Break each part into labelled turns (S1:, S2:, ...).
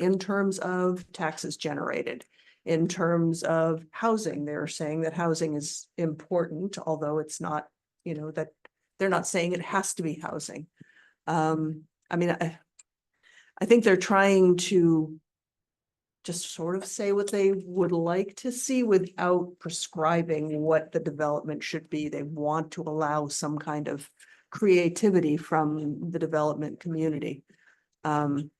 S1: in terms of taxes generated. In terms of housing, they're saying that housing is important, although it's not, you know, that they're not saying it has to be housing. Um, I mean, I, I think they're trying to just sort of say what they would like to see without prescribing what the development should be. They want to allow some kind of creativity from the development community. Um,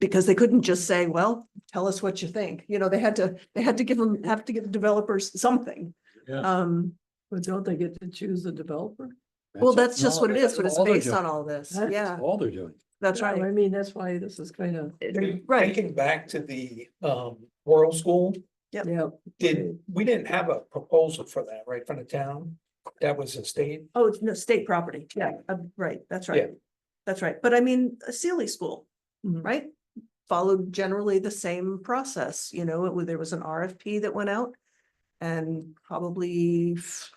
S1: because they couldn't just say, well, tell us what you think. You know, they had to, they had to give them, have to give the developers something.
S2: Yeah.
S1: Um,
S3: But don't they get to choose the developer?
S1: well, that's just what it is, but it's
S2: all they're
S1: based
S2: doing.
S1: on all this.
S3: That's
S1: Yeah,
S2: All they're doing.
S1: that's
S3: Yeah, I
S1: right.
S3: mean, that's why this is kind of,
S1: It- Right,
S4: Thinking back to the um oral school,
S1: Yep.
S3: yeah.
S4: did, we didn't have a proposal for that, right, from the town? That was a state,
S1: oh, it's no, state property. Yeah, uh, right, that's right.
S4: Yeah.
S1: That's right. But I mean, a Sealy School,
S3: Mhm.
S1: right? Followed generally the same process, you know, it was, there was an RFP that went out. And probably f-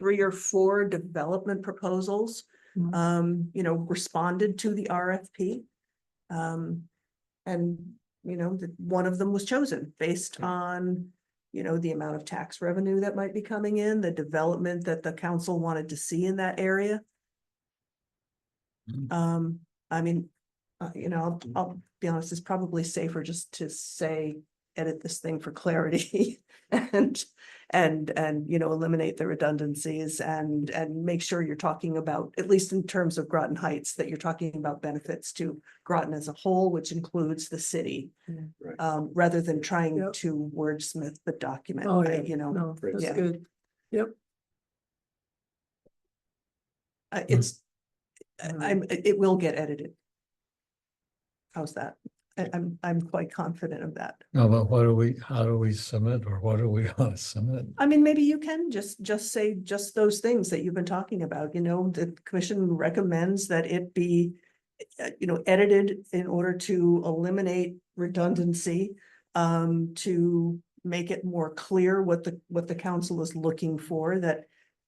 S1: three or four development proposals,
S3: Mhm.
S1: um, you know, responded to the RFP. Um, and, you know, the, one of them was chosen based on, you know, the amount of tax revenue that might be coming in, the development that the council wanted to see in that area.
S2: Mm.
S1: Um, I mean, uh, you know, I'll, I'll be honest, it's probably safer just to say, edit this thing for clarity. And, and, and, you know, eliminate the redundancies and, and make sure you're talking about, at least in terms of Groton Heights, that you're talking about benefits to Groton as a whole, which includes the city.
S3: Yeah.
S2: Right.
S1: Um, rather than trying
S3: Mm. Yep.
S1: to wordsmith the document,
S3: Oh,
S1: I-
S3: yeah,
S1: you know,
S3: no, that's
S1: Yeah.
S3: good.
S1: uh,
S5: Hmm.
S1: it's, I-
S3: Mm.
S1: I'm, it it will get edited. How's that? I, I'm, I'm quite confident of that.
S5: No, but what do we, how do we submit or what do we want to submit?
S1: I mean, maybe you can just, just say just those things that you've been talking about, you know, the commission recommends that it be. uh, You know, edited in order to eliminate redundancy, um, to make it more clear what the, what the council is looking for, that.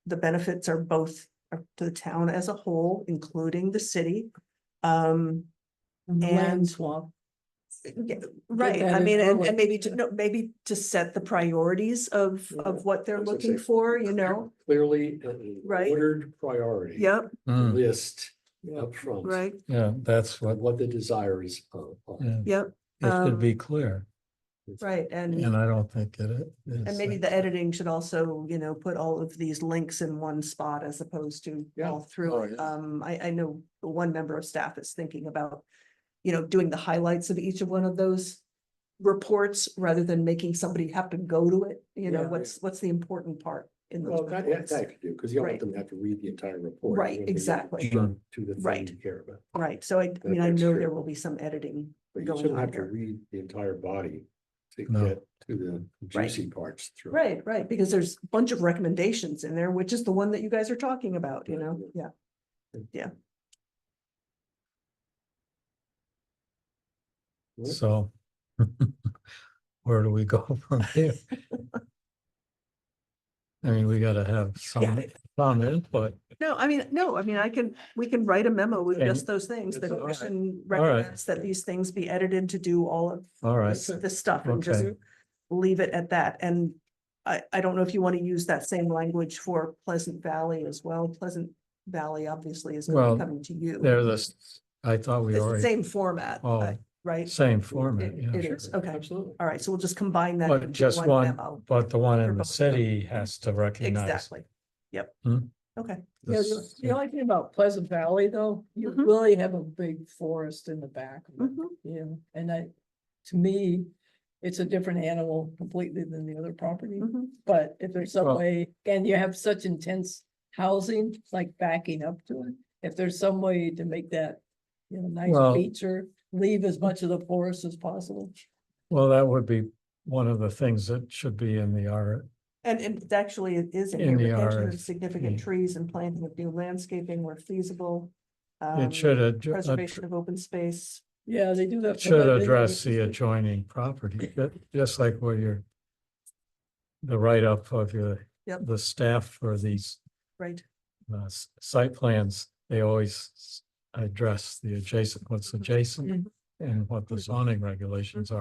S1: The benefits are both are to the town as a whole, including the city. Um,
S3: And the land
S1: And-
S3: swap.
S1: yeah, Right,
S3: that
S1: I
S3: in
S1: mean, and,
S3: early.
S1: and maybe to, no, maybe to set the priorities of,
S2: Yeah,
S1: of what
S2: I
S1: they're
S2: was gonna
S1: looking
S2: say,
S1: for, you know?
S2: Clearly, an
S1: Right.
S2: ordered priority.
S1: Yep,
S5: Hmm,
S2: List up front.
S1: right,
S5: yeah, that's
S2: What,
S5: what,
S2: what the desire is. of- of-
S5: yeah,
S1: yep,
S5: it
S1: Um,
S5: should be clear,
S1: right, and,
S5: and I don't think it is.
S1: and maybe
S5: uh,
S1: the editing should also, you know, put all of these links in one spot as opposed to
S2: Yeah.
S1: all through
S2: Oh,
S1: it.
S2: yeah.
S1: Um, I, I know one member of staff is thinking about, you know, doing the highlights of each of one of those reports rather than making somebody have to go to it, you know,
S3: Yeah.
S1: what's, what's the important part in those
S2: Well, that, that
S1: reports?
S2: that could do, because you don't
S1: Right.
S2: want them to have to read the entire report.
S1: Right,
S2: You want them to
S1: exactly.
S2: jump To the thing
S1: Right.
S2: you care about,
S1: Right, so I, I mean, I
S2: that's
S1: know
S2: true.
S1: there will be some editing
S2: but you
S1: Going
S2: shouldn't
S1: on
S2: have to
S1: there.
S2: read the entire body to
S5: No.
S2: get to the
S1: Right.
S2: juicy parts. through.
S1: Right, right, because there's a bunch of recommendations in there, which is the one that you guys are talking about, you
S2: Right,
S1: know, yeah.
S5: So. Where do we go from here? I mean, we gotta have some, some input.
S1: No, I mean, no, I mean, I can, we can write a memo with just
S5: And-
S1: those things. The
S2: That's all right.
S1: commission
S5: All right.
S1: recommends that these things be edited to do all of
S5: All right,
S1: this, this stuff and just
S5: Okay.
S1: leave it at that. And I, I don't know if you want to use that same language for Pleasant Valley as well. Pleasant Valley obviously is gonna
S5: Well,
S1: be coming to you.
S5: they're the, s- I thought we
S1: It's the
S5: already,
S1: same format,
S5: Oh.
S1: uh, right?
S5: same format,
S1: It-
S5: yeah,
S1: it
S5: sure.
S1: is, okay.
S2: Absolutely.
S1: All right, so we'll just combine that.
S5: But
S1: into
S5: just one,
S1: memo.
S5: but the one
S1: for
S5: in the
S1: both of them.
S5: city has to recognize.
S1: Exactly. Yep.
S5: Hmm.
S1: Okay,
S3: Yeah,
S5: this-
S3: the- the only thing about Pleasant Valley though, you
S2: Mm-hmm.
S1: Mhm.
S3: really have a big forest in the back. of it,
S1: Mhm.
S3: You know, and I, to me, it's a different animal completely than the other property.
S1: Mhm.
S3: But if there's some
S5: Well-
S3: way, and you have such intense housing, like backing up to it, if there's some way to make that, you know,
S5: Well-
S3: nice feature, leave as much of the forest as possible.
S5: Well, that would be one of the things that should be in the R,
S1: and and it actually it is in here,
S5: In the
S1: retention of
S5: RFP.
S1: significant trees and planting of new landscaping where feasible. um,
S5: it should, uh, ad-
S1: Preservation
S5: ad-
S1: of open space,
S3: Yeah, they do that.
S5: it should address the adjoining property, ju- just like where your the write-up of your,
S1: Yep.
S5: the staff for these
S1: right?
S5: uh, s- site plans, they always s- address the adjacent, what's adjacent.
S1: Mm-hmm.
S5: and what the zoning regulations are.